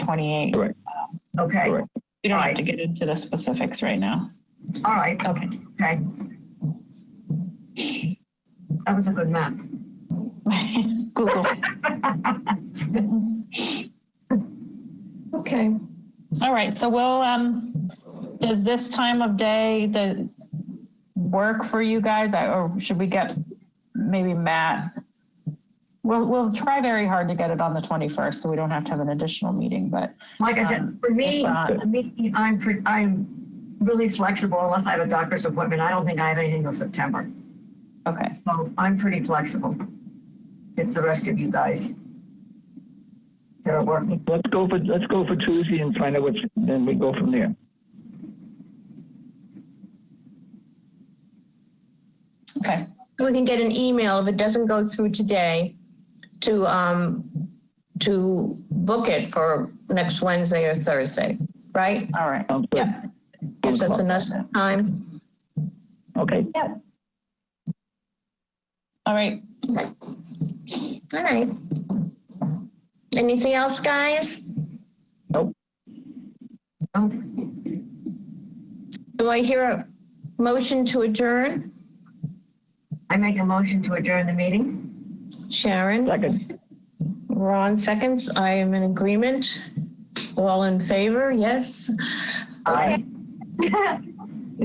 28. Correct. Okay, Correct. We don't have Right. to get into the specifics right now. all right, Okay. okay. That was a good map. Google. Okay, All right, so we'll, um, does this time of day, the work for you guys, I- or should we get maybe Matt? We'll, we'll try very hard to get it on the 21st, so we don't have to have an additional meeting, but Like I said, for me, for me, I'm, pre- I'm really flexible unless I have a doctor's appointment. I don't think I have anything till September. okay. So I'm pretty flexible. It's the rest of you guys that are working. Let's go for, let's go for Tuesday and find out what's, then we go from there. Okay, we can get an email if it doesn't go through today to, um, to book it for next Wednesday or Thursday, right? all right. Sounds good. Yeah. Gives us enough time. Okay, All right, All right. Anything else, guys? Um, Do I hear a motion to adjourn? I make a motion to adjourn the meeting. Sharon, second, Ron seconds. I am in agreement. All in favor, yes? Aye.